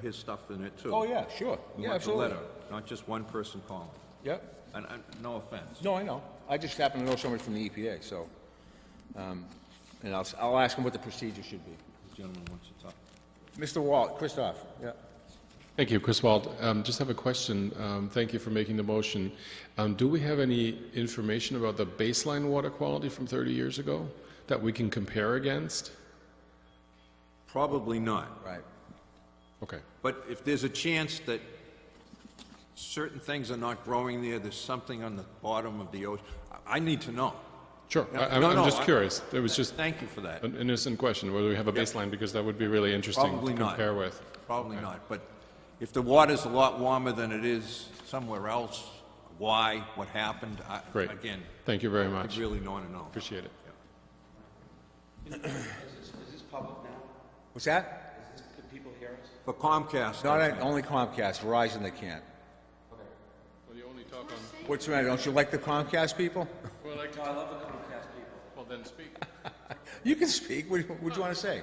his stuff in it too. Oh, yeah, sure. We want the Yeah, absolutely. letter, not just one person calling. Yep. And, and, no offense. No, I know. I just happen to know somebody from the EPA, so, um, and I'll, s- I'll ask him what the procedure should be. The gentleman wants to talk. Mr. Walt, Christoph, yeah. Thank you, Chris Wald. Um, just have a question. Um, thank you for making the motion. Um, do we have any information about the baseline water quality from 30 years ago that we can compare against? Probably not. Right. Okay. But if there's a chance that certain things are not growing there, there's something on the bottom of the ocean, I- I need to know. Sure. No, I, I'm, no, I'm no, just I- curious. It was just Thank you for that. an innocent question whether we have a baseline because that would be really interesting Probably to not. compare with. Probably not, but if the water's a lot warmer than it is somewhere else, why, what happened, I, Great. again, Thank you very I much. really want to know. Appreciate it. What's that? For Comcast, Not, I- at- only Comcast, Verizon they can't. Well, you only talk on. What's the matter, don't you like the Comcast people? Well, I, I love the Comcast people. Well, then speak. You can speak, what, what do you wanna say?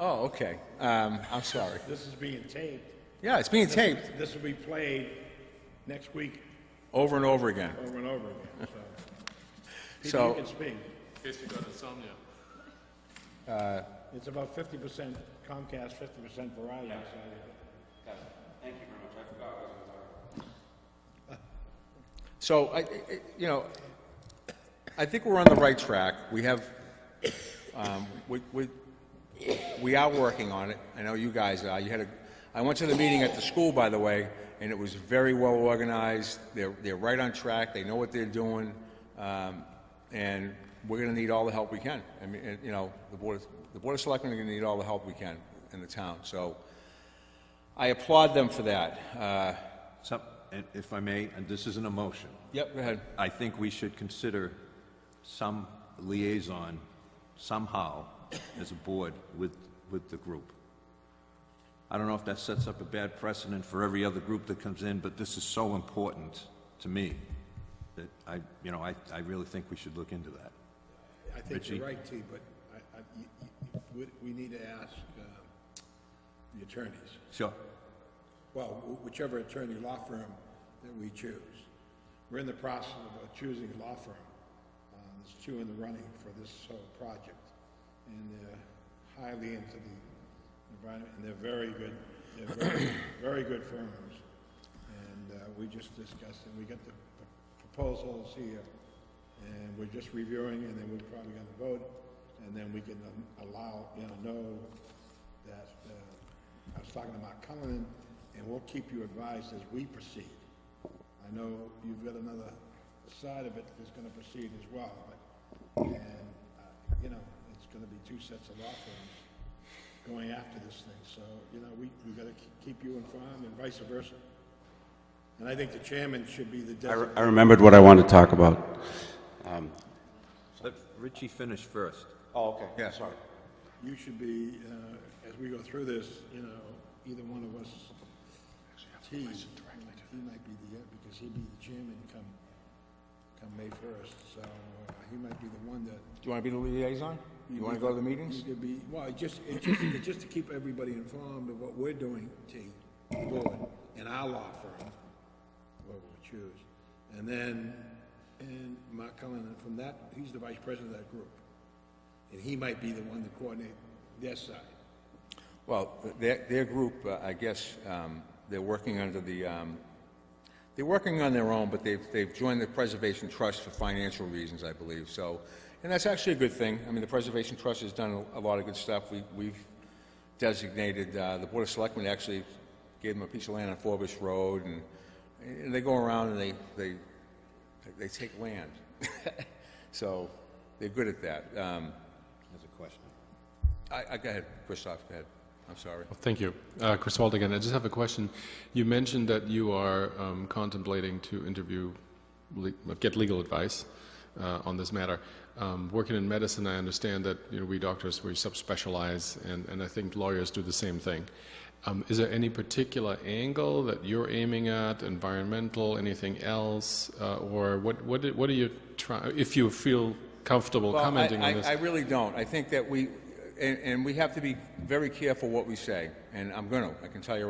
Oh, okay, um, I'm sorry. This is being taped. Yeah, it's being taped This will be played next week over and over again, over and over again, so. Peter, So- you can speak. In case you got insomnia. Uh, It's about fifty percent Comcast, fifty percent Verizon, so. So, I, I- I- you know, I think we're on the right track. We have, um, we, we, we are working on it. I know you guys are. You had a, I went to the meeting at the school, by the way, and it was very well organized. They're, they're right on track. They know what they're doing. Um, and we're gonna need all the help we can. I mean, and, you know, the board, of- the board of selectmen are gonna need all the help we can in the town. So I applaud them for that. Uh, some- and if I may, and this isn't a motion, yep, go ahead. I think we should consider some liaison somehow as a board with, with the group. I don't know if that sets up a bad precedent for every other group that comes in, but this is so important to me that I, you know, I, I really think we should look into that. I think Richie? you're right, T, but I, I, you- you- you- we, we need to ask, uh, the attorneys, Sure. well, wh- whichever attorney law firm that we choose. We're in the process of choosing a law firm. Uh, there's two in the running for this whole project, and they're highly into the environment, and they're very good, they're very, very good firms. And, uh, we just discussed, and we got the p- proposals here, and we're just reviewing, and then we're probably gonna vote, and then we can um, allow, you know, know that, uh, I was talking to Mark Cullen, and we'll keep you advised as we proceed. I know you've got another side of it that's gonna proceed as well, but, and, uh, you know, it's gonna be two sets of law firms going after this thing, so, you know, we, we gotta ke- keep you informed and vice versa. And I think the chairman should be the I re- I designated. remembered what I wanted to talk about. Let Richie finish first. Oh, okay. Yeah, sorry. You should be, uh, as we go through this, you know, either one of us, T, he might be the, uh, because he'd be the chairman come, come May first, so uh, he might be the one that. Do you want to be the liaison? You want to go to the meetings? He could be, well, it just, it just, it just to keep everybody informed of what we're doing, T, the board, and our law firm, what we choose. And then, and Mark Cullen, and from that, he's the vice president of that group. And he might be the one to coordinate their side. Well, their, their group, uh, I guess, um, they're working under the, um, they're working on their own, but they've, they've joined the Preservation Trust for financial reasons, I believe, so, and that's actually a good thing. I mean, the Preservation Trust has done a lot of good stuff. We, we've designated, uh, the Board of Selectmen actually gave them a piece of land on Forbes Road, and, and they go around and they, they, they take land. So, they're good at that. Um, As a question. I, I, go ahead, Christoph, go ahead. I'm sorry. Thank you. Uh, Chris Wald again. I just have a question. You mentioned that you are um, contemplating to interview, le- get legal advice uh, on this matter. Um, working in medicine, I understand that you know, we doctors, we subspecialize, and, and I think lawyers do the same thing. Um, is there any particular angle that you're aiming at, environmental, anything else, uh, or what, what, do- what are you trying, if you feel comfortable Well, I- commenting I- on this? I really don't. I think that we, and, and we have to be very careful what we say, and I'm gonna, I can tell you